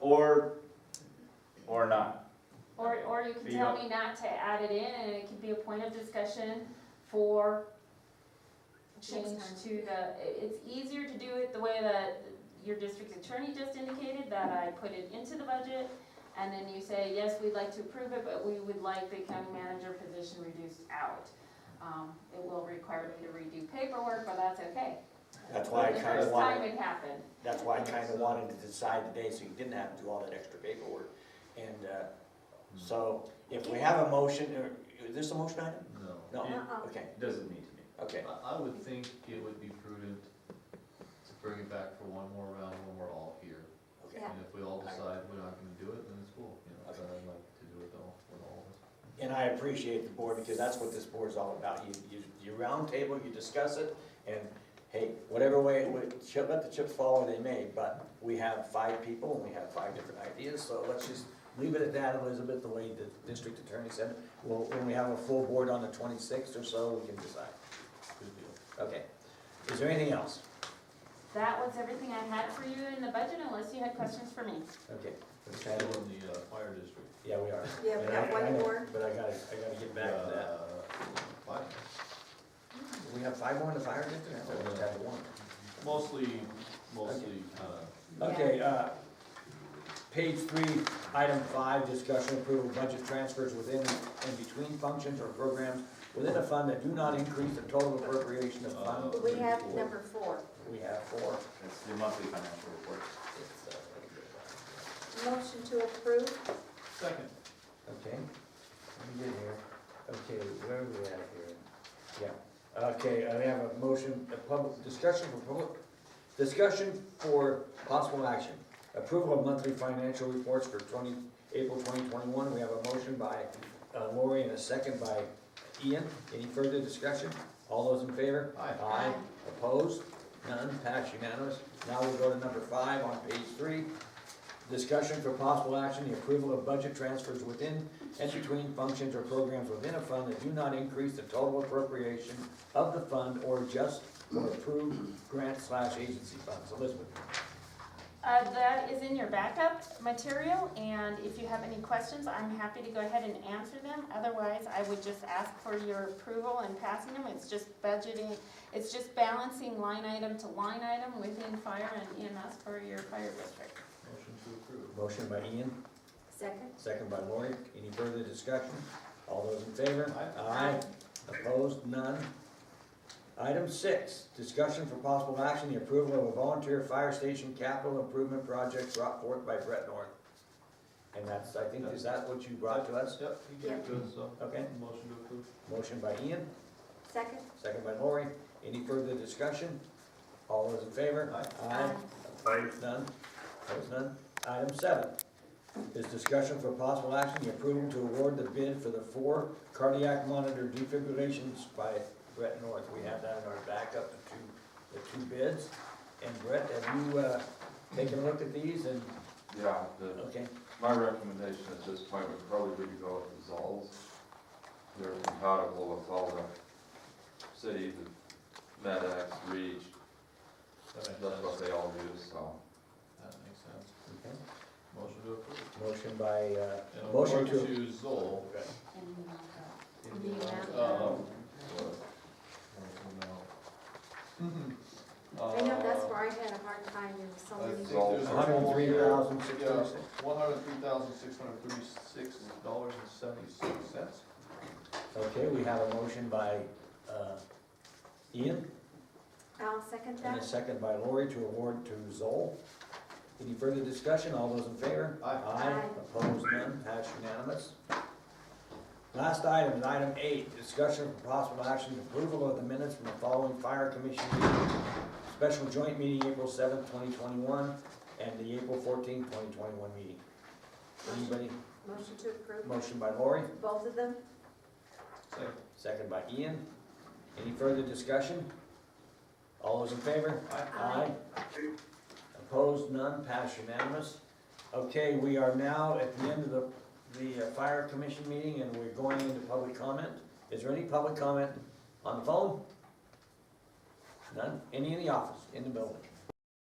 or, or not. Or, or you can You tell don't- me not to add it in, and it can be a point of discussion for change time. to the, i- it's easier to do it the way that your district attorney just indicated, that I put it into the budget, and then you say, yes, we'd like to approve it, but we would like the county manager position reduced out. Um, it will require me to redo paperwork, but that's okay. That's why I The kinda first time wanted, it happened. that's why I kinda wanted to decide today, so you didn't have to do all that extra paperwork. And, uh, so if we have a motion, or, is this a motion item? No, No, Uh-uh. okay, It Doesn't need to be. okay, I, I would think it would be prudent to bring it back for one more round when we're all here. okay. Yeah. And if we all decide we're not gonna do it, then it's cool, you know, but Okay. I'd like to do it all, with all of us. And I appreciate the board, because that's what this board's all about. You, you, you roundtable, you discuss it, and hey, whatever way, it would- chip- let the chips fall where they may, but we have five people and we have five different ideas, so let's just leave it at that, Elizabeth, the way the district attorney said it. Well, when we have a full board on the twenty-sixth or so, we can decide. good deal. Okay. Is there anything else? That was everything I had for you in the budget, unless you had questions for me. Okay. We're still in the uh, fire district. Yeah, we are. Yeah, we got one more. But I gotta, I gotta get back to that. Uh, fire. We have five more in the fire district? I thought we just had one. Mostly, mostly, uh, Okay, uh, page three, item five, discussion approval of budget transfers within and between functions or programs within a fund that do not increase the total appropriation of fund. We have number four, We have four. It's the monthly financial report. It's, uh, motion to approve, second. Okay, let me get here. Okay, where are we at here? Yeah, okay, I have a motion, a public, discussion for public, discussion for possible action. Approval of monthly financial reports for twenty, April twenty twenty-one. We have a motion by uh, Lori and a second by Ian. Any further discussion? All those in favor? Aye. Aye. Opposed? None, passed unanimous. Now we'll go to number five on page three. Discussion for possible action, the approval of budget transfers within and between functions or programs within a fund that do not increase the total appropriation of the fund or adjust or approve grant slash agency funds. Elizabeth? Uh, that is in your backup material, and if you have any questions, I'm happy to go ahead and answer them. Otherwise, I would just ask for your approval and passing them. It's just budgeting, it's just balancing line item to line item within fire and EMS for your fire district. Motion to approve. Motion by Ian, second. second by Lori. Any further discussion? All those in favor? Aye. Opposed? None. Item six, discussion for possible action, the approval of a volunteer fire station capital improvement project brought forth by Brett North. And that's, I think, is that what you brought to us? Yep, you did good, so. Okay. Motion to approve. Motion by Ian, Second, second by Lori. Any further discussion? All those in favor? Aye. Um, Opposed, none? Opposed, none? Item seven is discussion for possible action, the approval to award the bid for the four cardiac monitor defibrillations by Brett North. We have that in our backup, the two, the two bids. And Brett, have you, uh, taken a look at these and, Yeah, the, okay, my recommendation at this point would probably be to go with the Zolls. They're compatible with all the cities, the MedX, REACH, That makes that's what sense. they all use, so. That makes sense. okay. Motion to approve. Motion by, uh, And award motion to. To Zoll. And the amount Uh, of- I know that's uh, where I had a hard time, there was so many. That's all. Hundred and three thousand six hundred six. One hundred and three thousand, six hundred and thirty-six dollars and seventy-six cents. Okay, we have a motion by, uh, Ian I'll second and a that, second by Lori to award to Zoll. Any further discussion? All those in favor? Aye. Aye, Aye. opposed, none, passed unanimous. Last item, is item eight, discussion of possible action, approval of the minutes from the following fire commission meeting. Special joint meeting, April seventh, twenty twenty-one, and the April fourteenth, twenty twenty-one meeting. Anybody, motion to approve, motion by Lori? both of them, Second. Second by Ian. Any further discussion? All those in favor? Aye. Opposed, none, passed unanimous. Okay, we are now at the end of the, the uh, fire commission meeting and we're going into public comment. Is there any public comment on the phone? None? Any in the office, in the building?